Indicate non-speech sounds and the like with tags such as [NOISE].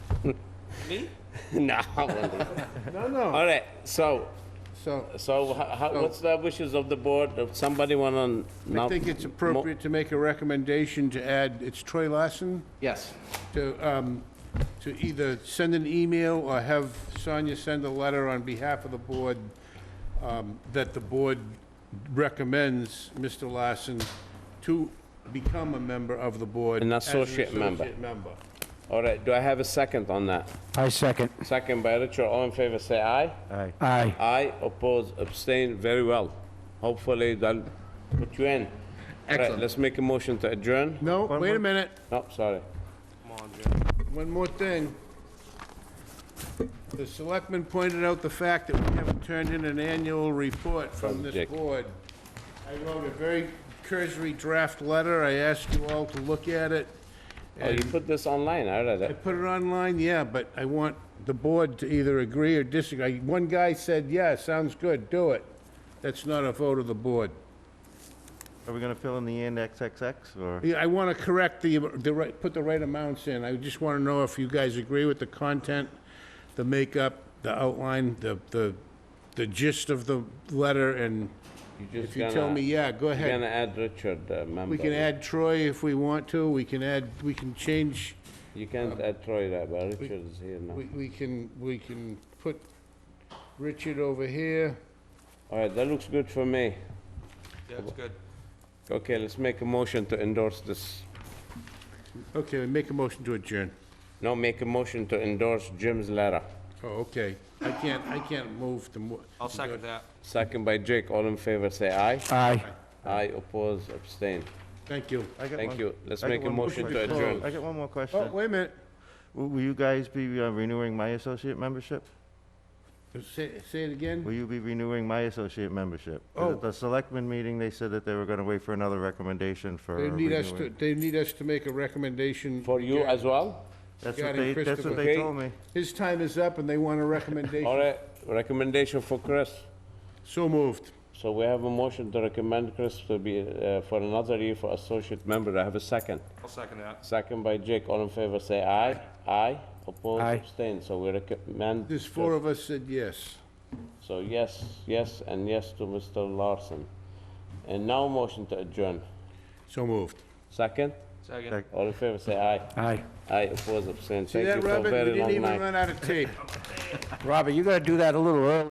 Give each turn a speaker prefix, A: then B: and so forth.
A: Me?
B: [LAUGHS] No, I
C: [LAUGHS]
B: wouldn't.
C: No, no.
B: All right, so,
C: So
B: so ho- ho- what's the wishes of the board? If somebody want to...
C: I think it's appropriate to make a recommendation to add, it's Troy Larson,
B: Yes.
C: to, um, to either send an email or have Sonia send a letter on behalf of the board, um, that the board recommends Mr. Larson to become a member of the board.
B: An
C: as
B: associate member.
C: associate member.
B: All right, do I have a second on that?
D: I second.
B: Second by Richard, all in favor, say aye.
E: Aye.
D: Aye.
B: Aye, oppose, abstain, very well. Hopefully, they'll put you in. All right,
F: Excellent.
B: let's make a motion to adjourn.
C: No, wait a minute,
B: No, sorry.
C: one more thing. The selectman pointed out the fact that we haven't turned in an annual report from this
B: Jake.
C: board. I wrote a very cursory draft letter, I asked you all to look at it.
B: Oh, you put this online, I read
C: I
B: it.
C: put it online, yeah, but I want the board to either agree or disagree. One guy said, yeah, sounds good, do it. That's not a vote of the board.
E: Are we gonna fill in the and XXX, or?
C: Yeah, I want to correct the, the right, put the right amounts in. I just want to know if you guys agree with the content, the makeup, the outline, the, the, the gist of the letter, and if you tell me, yeah, go
B: We're gonna
C: ahead.
B: add Richard, uh, member.
C: We can add Troy if we want to, we can add, we can change,
B: You can't add Troy there, but Richard is here now.
C: we, we can, we can put Richard over here.
B: All right, that looks good for me.
A: Yeah, it's good.
B: Okay, let's make a motion to endorse this.
C: Okay, make a motion to adjourn.
B: No, make a motion to endorse Jim's letter.
C: Oh, okay. I can't, I can't move the mo-
A: I'll second that.
B: Second by Jake, all in favor, say aye.
D: Aye.
B: Aye, oppose, abstain.
C: Thank you.
E: I got
B: Thank
E: one-
B: you. Let's
E: I got
B: make a
E: one more
B: motion to
E: question.
B: adjourn.
E: I got one more
C: Oh,
E: question.
C: wait a minute.
E: Will will you guys be uh, renewing my associate membership?
C: Say, say it again?
E: Will you be renewing my associate membership? 'Cause
C: Oh.
E: At the selectmen meeting, they said that they were gonna wait for another recommendation for
C: They need us to,
E: renewing.
C: they need us to make a recommendation.
B: For you as well?
E: That's what
C: regarding
E: they, that's
C: Christopher.
E: what they
B: Okay.
E: told me.
C: His time is up and they want a
B: All
C: recommendation.
B: right, recommendation for Chris.
C: So moved.
B: So we have a motion to recommend Chris to be, uh, for another year for associate member. I have a second.
A: I'll second that.
B: Second by Jake, all in favor, say aye. Aye, oppose,
D: Aye.
B: abstain. So we recommend.
C: There's four of us said yes.
B: So yes, yes, and yes to Mr. Larson. And now motion to adjourn.
C: So moved.
B: Second?
A: Second.
E: Sec-
B: All in favor, say aye.
D: Aye.
B: Aye, oppose, abstain.
C: See
B: Thank you
C: that,
B: for a
C: Robert? We
B: very
C: didn't
B: long
C: even
B: night.
C: run out of tape.
D: Robert, you gotta do that a little early.